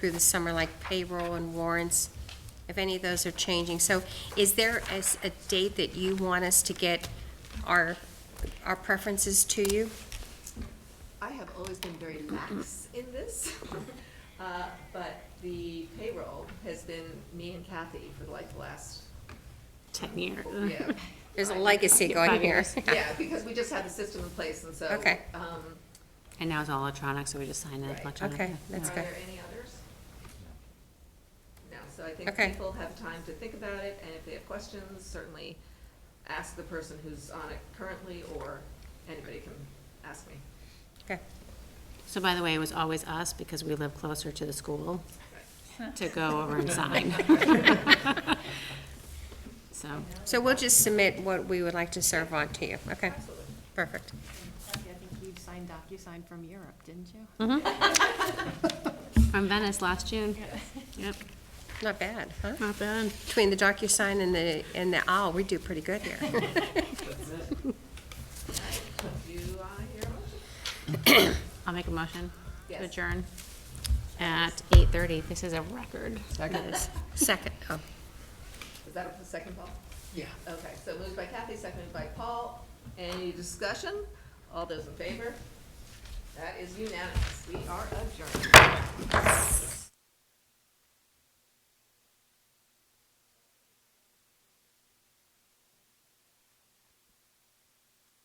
through the summer, like payroll and warrants, if any of those are changing. So is there a, s- a date that you want us to get our, our preferences to you? I have always been very lax in this, uh, but the payroll has been me and Kathy for like the last, 10 years. yeah. There's a Five- legacy Five going here. years. Yeah, because we just had the system in place, and so. Okay. um, And now it's all electronic, so we just sign it Right. electronically. Okay, that's Are good. there any others? No, so I think Okay. people have time to think about it, and if they have questions, certainly ask the person who's on it currently, or anybody can ask me. Okay. So by the way, it was always us, because we live closer to the school, to go over and sign. So, So we'll just submit what we would like to serve on to you. Okay, Absolutely. perfect. Kathy, I think you signed DocuSign from Europe, didn't you? from Venice last June. Yep, Not bad, huh? not bad. Between the DocuSign and the, and the owl, we do pretty good here. Do I hear a motion? I'll make a motion Yes. to adjourn at 8:30. This is a record. Second, oh, Is that the second, Paul? Yeah. Okay, so moved by Kathy, seconded by Paul. Any discussion? All those in favor? That is unanimous. We are adjourned.